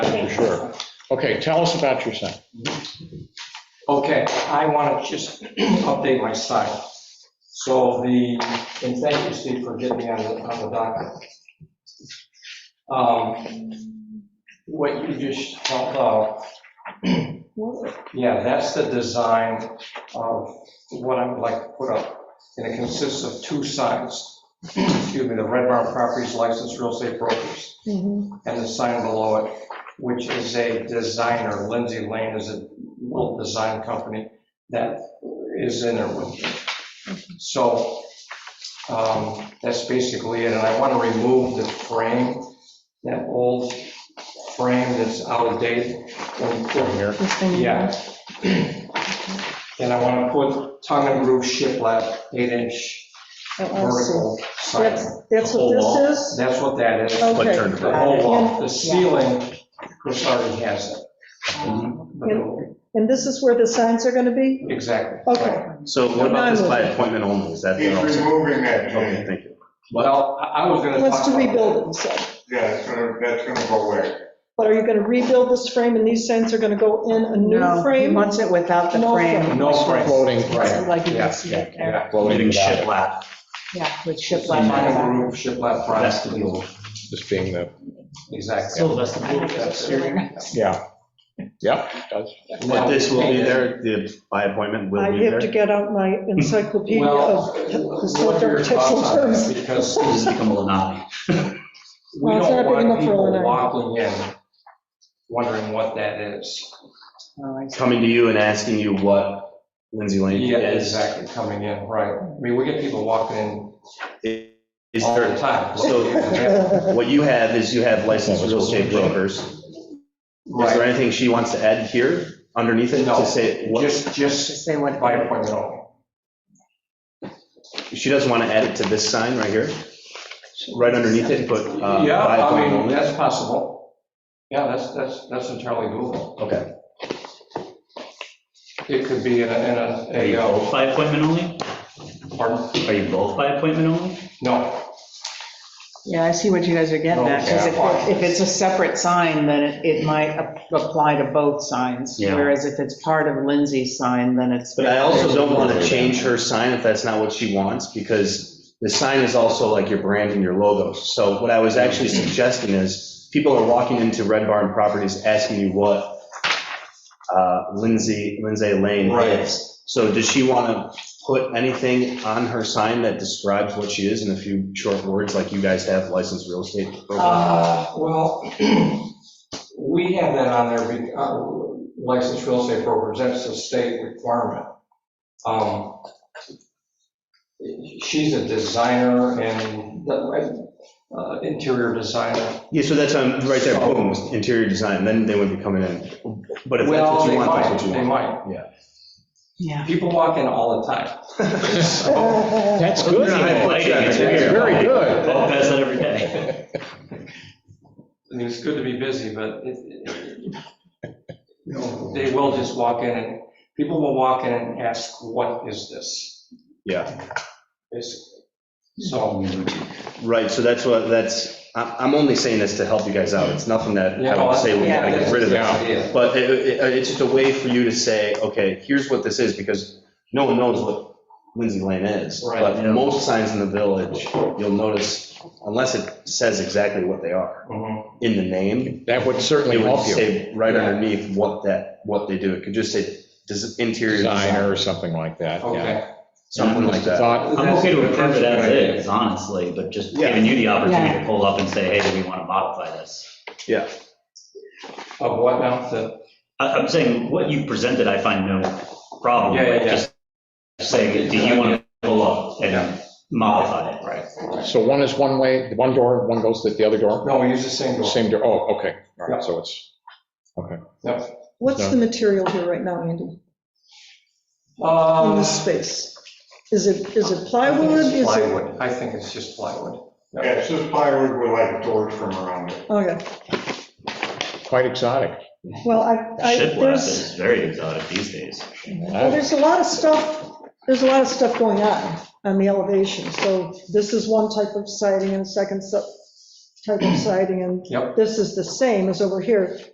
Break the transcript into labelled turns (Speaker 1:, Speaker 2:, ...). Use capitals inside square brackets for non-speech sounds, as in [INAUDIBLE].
Speaker 1: Oh, sure. Okay, tell us about your sign.
Speaker 2: Okay, I want to just [CLEARS THROAT] update my site. So the, and thank you, Steve, for getting me on the, on the docket. Um, What you just held out, yeah, that's the design of what I would like to put up. And it consists of two signs. [CLEARS THROAT] Excuse me, the Red Barn Properties Licensed Real Estate Brokers
Speaker 3: Mhm.
Speaker 2: and the sign below it, which is a designer, Lindsay Lane is a little design company that is in there with me. So um, that's basically it, and I want to remove the frame, that old frame that's out of date. and put-
Speaker 3: This thing here.
Speaker 2: Yeah. And I want to put tongue and groove shiplap, eight-inch
Speaker 3: Oh, I see.
Speaker 2: vertical sign.
Speaker 3: That's, Oh, that's what
Speaker 4: Whole
Speaker 3: this is?
Speaker 2: That's what that is.
Speaker 3: Okay.
Speaker 4: turned
Speaker 2: The
Speaker 4: around.
Speaker 2: whole wall, the ceiling, Chris already has it.
Speaker 3: Um,
Speaker 2: But it'll-
Speaker 3: And this is where the signs are going to be?
Speaker 2: Exactly.
Speaker 3: Okay.
Speaker 4: So what about this by appointment only? Is that
Speaker 5: He's
Speaker 4: there also?
Speaker 5: removing that,
Speaker 4: Okay,
Speaker 5: Jay.
Speaker 4: thank you.
Speaker 2: Well, I I was gonna.
Speaker 3: Wants
Speaker 2: talk
Speaker 3: to
Speaker 2: about
Speaker 3: rebuild
Speaker 2: that.
Speaker 3: it, so.
Speaker 5: Yeah, it's gonna, that's gonna go away.
Speaker 3: But are you going to rebuild this frame and these signs are going to go in a new
Speaker 6: No, he
Speaker 3: frame?
Speaker 6: wants it without the
Speaker 3: No
Speaker 6: frame,
Speaker 2: No frame.
Speaker 1: Floating,
Speaker 2: Right.
Speaker 6: like you
Speaker 2: Yeah,
Speaker 6: can see it there.
Speaker 2: yeah.
Speaker 1: floating without it,
Speaker 4: shiplap,
Speaker 6: Yeah, with shiplap.
Speaker 2: Tongue and
Speaker 6: on
Speaker 2: groove, shiplap
Speaker 4: that's
Speaker 2: front.
Speaker 4: the rule.
Speaker 1: just being the,
Speaker 2: Exactly.
Speaker 7: So that's the blue, that's the
Speaker 6: it.
Speaker 1: yeah.
Speaker 2: [LAUGHS]
Speaker 1: Yep, it does.
Speaker 4: But this will be there, the by appointment
Speaker 3: I
Speaker 4: will be
Speaker 3: have to
Speaker 4: there.
Speaker 3: get out
Speaker 2: [LAUGHS]
Speaker 3: my encyclopedia
Speaker 2: Well,
Speaker 3: of
Speaker 2: what are your
Speaker 3: historical tips and
Speaker 2: thoughts on
Speaker 3: terms.
Speaker 2: that? Because
Speaker 4: This become a Lenati.
Speaker 2: we
Speaker 3: [LAUGHS] Well, it's not
Speaker 2: don't
Speaker 3: big
Speaker 2: want
Speaker 3: enough for
Speaker 2: people
Speaker 3: Lenore.
Speaker 2: waddling in, wondering what that is.
Speaker 6: Oh, I see.
Speaker 4: Coming to you and asking you what Lindsay Lane
Speaker 2: Yeah,
Speaker 4: is.
Speaker 2: exactly, coming in, right. I mean, we get people walking in
Speaker 4: Is
Speaker 2: all the
Speaker 4: there,
Speaker 2: time.
Speaker 4: so- what you have is you have licensed real estate brokers. Is there
Speaker 2: [LAUGHS] Right,
Speaker 4: anything she wants to add here underneath it
Speaker 2: No.
Speaker 4: to say, what,
Speaker 2: just, just
Speaker 6: Just say what.
Speaker 2: by appointment only.
Speaker 4: she doesn't want to add it to this sign right here? Right underneath it, put uh,
Speaker 2: Yeah, I
Speaker 4: by appointment
Speaker 2: mean,
Speaker 4: only?
Speaker 2: that's possible. Yeah, that's, that's, that's entirely doable.
Speaker 4: Okay.
Speaker 2: It could be in a, in a-
Speaker 7: Are you
Speaker 2: a, uh,
Speaker 7: both by appointment only?
Speaker 2: pardon?
Speaker 7: Are you both by appointment only?
Speaker 2: No,
Speaker 6: Yeah, I see what you guys are getting at, because if, if it's a separate sign, then it, it might ap- apply to both signs.
Speaker 7: Yeah.
Speaker 6: Whereas if it's part of Lindsay's sign, then it's.
Speaker 4: But I also don't want to change her sign if that's not what she wants, because the sign is also like your brand and your logo. So what I was actually suggesting is, people are walking into Red Barn Properties asking you what uh, Lindsay, Lindsay Lane
Speaker 2: Right.
Speaker 4: is. So does she want to put anything on her sign that describes what she is in a few short words, like you guys have licensed real estate? program?
Speaker 2: uh, well, [CLEARS THROAT] we have that on there, be- uh, licensed real estate brokers, that's a state requirement. Um, She's a designer and uh, interior designer.
Speaker 4: Yeah, so that's, um, right there, boom, interior design, then they would be coming in. But if that's
Speaker 2: Well,
Speaker 4: what
Speaker 2: they
Speaker 4: you want, that's
Speaker 2: might,
Speaker 4: what you
Speaker 2: they
Speaker 4: want.
Speaker 2: might.
Speaker 6: Yeah.
Speaker 2: People walk in all the time. So-
Speaker 1: That's good.
Speaker 4: You're not high foot
Speaker 7: Lighting,
Speaker 4: traffic
Speaker 7: it's
Speaker 4: here.
Speaker 7: weird.
Speaker 1: Very good.
Speaker 7: Both pass that every day.
Speaker 2: I mean, it's good to be busy, but it, it- you know, they will just walk in and, people will walk in and ask, what is this?
Speaker 4: Yeah.
Speaker 2: Basically. So,
Speaker 4: Right, so that's what, that's, I- I'm only saying this to help you guys out. It's nothing that
Speaker 2: Yeah,
Speaker 4: I
Speaker 2: no,
Speaker 4: would say we
Speaker 6: yeah,
Speaker 4: gotta get rid of
Speaker 1: yeah.
Speaker 4: it.
Speaker 2: yeah,
Speaker 4: But it- it- it's just a way for you to say, okay, here's what this is, because no one knows what Lindsay Lane is.
Speaker 2: Right.
Speaker 4: But
Speaker 7: Yeah.
Speaker 4: most signs in the village, you'll notice, unless it says exactly what they are
Speaker 2: mhm,
Speaker 4: in the name,
Speaker 1: That would
Speaker 4: it
Speaker 1: certainly
Speaker 4: would
Speaker 1: help you,
Speaker 4: say right
Speaker 2: Yeah.
Speaker 4: underneath what that, what they do. It could just say des- interior
Speaker 1: designer
Speaker 4: design,
Speaker 1: or something like that, yeah.
Speaker 2: okay.
Speaker 4: something like that.
Speaker 1: Thought,
Speaker 7: I'm okay to approve it as is, honestly, but just giving you the opportunity to pull up and say, hey, do we want to modify this?
Speaker 2: Of what now, the,
Speaker 7: I- I'm saying, what you presented, I find no problem
Speaker 2: Yeah, yeah,
Speaker 7: with,
Speaker 2: yeah.
Speaker 7: just saying, do you want to pull up and modify it?
Speaker 2: right,
Speaker 1: so one is one way, one door, one goes to the other door,
Speaker 2: no, we use the same door.
Speaker 1: same door, oh, okay, all
Speaker 2: Yeah.
Speaker 1: right, so it's,
Speaker 3: [LAUGHS] What's the material here right now, Andy, in
Speaker 2: Um,
Speaker 3: this space? Is it, is it
Speaker 2: I think
Speaker 3: plywood?
Speaker 2: it's
Speaker 3: Is it,
Speaker 2: Plywood, I think it's just plywood.
Speaker 5: Yeah, it's just plywood with like doors from around it.
Speaker 3: okay,
Speaker 1: quite exotic.
Speaker 3: well, I, I,
Speaker 7: Shiplap
Speaker 3: there's,
Speaker 7: is very exotic these days.
Speaker 3: well, there's a lot of stuff, there's a lot of stuff going on on the elevation. So this is one type of siding and second su- type of siding, and
Speaker 2: Yep.
Speaker 3: this is the same as over here.